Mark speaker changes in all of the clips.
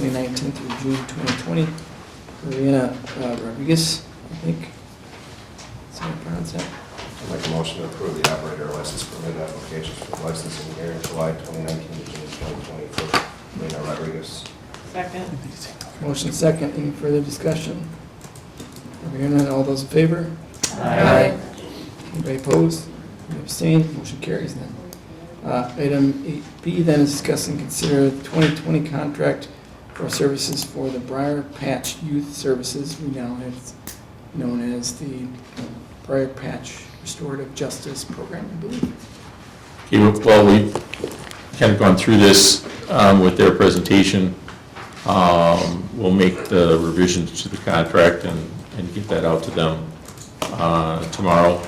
Speaker 1: 2019 through June 2020. Mariana uh, Rodriguez, I think. That's how I pronounce that.
Speaker 2: I'll make a motion to approve the operator license permit applications for licensing here in July 2019 to June 2020 for Marina Rodriguez.
Speaker 3: Second.
Speaker 1: Motion second, any further discussion? Hearing none, all those in favor?
Speaker 2: Aye.
Speaker 1: Anybody opposed? Any Abstained, motion carries then. Uh, Item eight B then is discuss and consider the 2020 contract for services for the Briar Patch Youth Services, we now have it's known as the Briar Patch Restorative Justice Program, I believe.
Speaker 4: Okay, well, we've kind of gone through this um, with their presentation. Um, We'll make the revisions to the contract and, and get that out to them uh, tomorrow,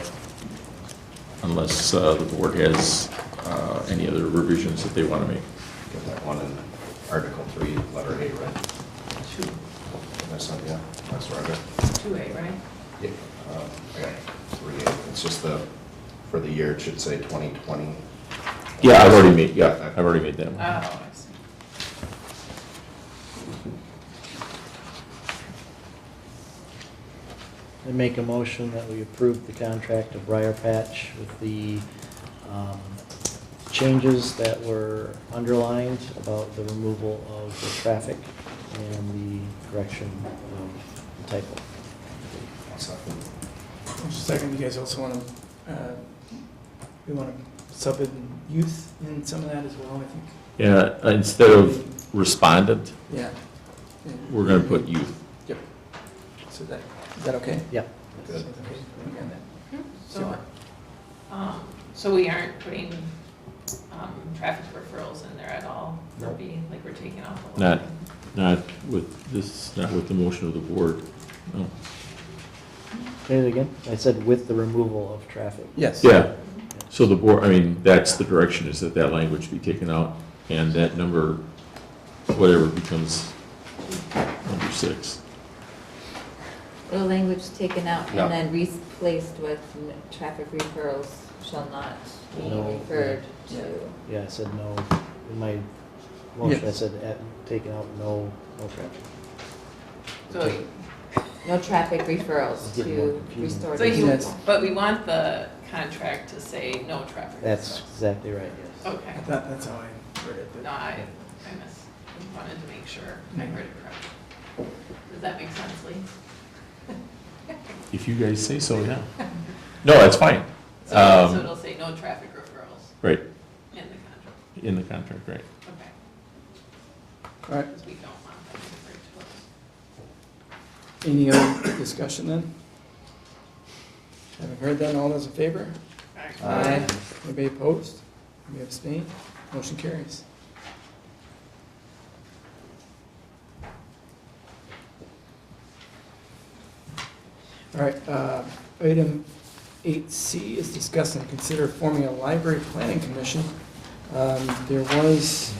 Speaker 4: unless uh, the board has uh, any other revisions that they want to make.
Speaker 2: Get that one in Article 3, Letter A, right?
Speaker 3: Two,
Speaker 2: That's not, yeah, that's where I got,
Speaker 3: two A, right?
Speaker 2: yeah, uh, I got 3A. It's just the, for the year, it should say 2020.
Speaker 4: Yeah, I've already made, yeah, I've already made that.
Speaker 3: Oh,
Speaker 4: one.
Speaker 3: I see.
Speaker 5: I make a motion that we approve the contract of Briar Patch with the um, changes that were underlined about the removal of the traffic and the correction of the typo.
Speaker 2: I'll second.
Speaker 1: Motion second, you guys also want to, we want to sub in youth in some of that as well, I think.
Speaker 4: Yeah, instead of respondent,
Speaker 1: Yeah.
Speaker 4: we're going to put youth.
Speaker 1: So that, is that okay?
Speaker 5: Yep.
Speaker 2: Good.
Speaker 1: Okay, we got that.
Speaker 3: So, um, so we aren't putting, um, traffic referrals in there at all? Or
Speaker 5: Nope.
Speaker 3: being, like, we're taking off the
Speaker 4: Not-
Speaker 3: line?
Speaker 4: Not with, this, not with the motion of the board, no.
Speaker 5: Say it again. I said with the removal of traffic.
Speaker 1: Yes.
Speaker 4: Yeah, so the board, I mean, that's the direction, is that that language be taken out, and that number, whatever, becomes number six.
Speaker 6: The language taken out
Speaker 2: Yeah.
Speaker 6: and then replaced with n- traffic referrals shall not be
Speaker 5: No.
Speaker 6: referred
Speaker 1: Yeah.
Speaker 6: to.
Speaker 5: Yeah, I said no. In my motion, I said at- taken out no, no traffic.
Speaker 3: So,
Speaker 6: No traffic referrals
Speaker 5: It's getting more
Speaker 6: to
Speaker 5: confusing.
Speaker 6: restorative.
Speaker 3: so you,
Speaker 1: Yes.
Speaker 3: but we want the contract to say no traffic
Speaker 5: That's
Speaker 3: referrals.
Speaker 5: exactly right, yes.
Speaker 3: Okay,
Speaker 1: I thought that's how I heard it. but-
Speaker 3: no, I, I mis, wanted to make sure I heard it correctly. Does that make sense, Lee?
Speaker 4: If you guys say so, yeah. No, that's fine,
Speaker 3: So so
Speaker 4: Um,
Speaker 3: it'll say no traffic referrals
Speaker 4: right,
Speaker 3: in the contract,
Speaker 4: in the contract, right.
Speaker 3: okay?
Speaker 1: All right,
Speaker 3: Because we don't want them to refer to us.
Speaker 1: any other discussion then? Having heard that, all those in favor?
Speaker 2: Aye.
Speaker 1: Anybody opposed? Anybody abstain? Motion carries. All right, uh, item eight C is discuss and consider forming a library planning commission. Um, There was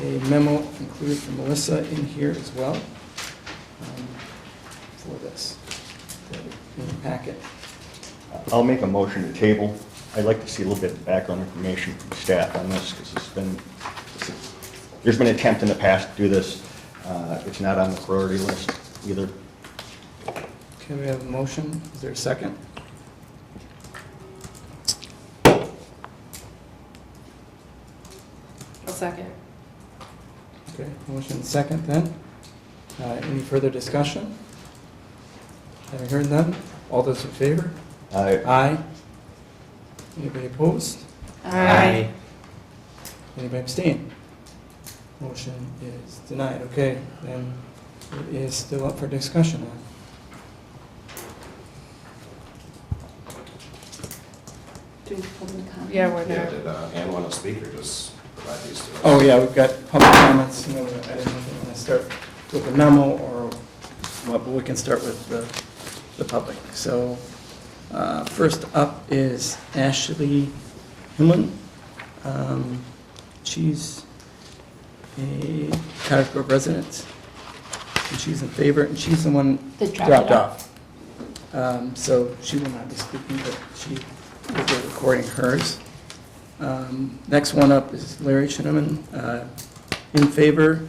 Speaker 1: a memo included from Melissa in here as well um, for this, in the packet.
Speaker 7: I'll make a motion to table. I'd like to see a little bit of background information from staff on this, because it's been, there's been an attempt in the past to do this. Uh, It's not on the priority list either.
Speaker 1: Okay, we have a motion. Is there a second?
Speaker 3: A second.
Speaker 1: Okay, motion and second then. Uh, Any further discussion? Having heard none, all those in favor?
Speaker 7: Uh,
Speaker 1: Aye. Anybody opposed?
Speaker 5: Aye.
Speaker 1: Anybody abstain? Motion is denied. Okay, then it is still up for discussion then.
Speaker 8: Yeah, we're
Speaker 2: Yeah,
Speaker 8: there.
Speaker 2: did uh, Ann want to speak or just provide these to us?
Speaker 1: Oh, yeah, we've got public comments, you know, I didn't know if we want to start with a memo or what, but we can start with the, the public. So, uh, first up is Ashley Himlin. Um, she's a Cottage Grove resident, and she's in favor, and she's the one
Speaker 8: That dropped it
Speaker 1: dropped off. Um, so she will not be speaking, but she will be recording hers. Um, Next one up is Larry Scheineman, uh in favor,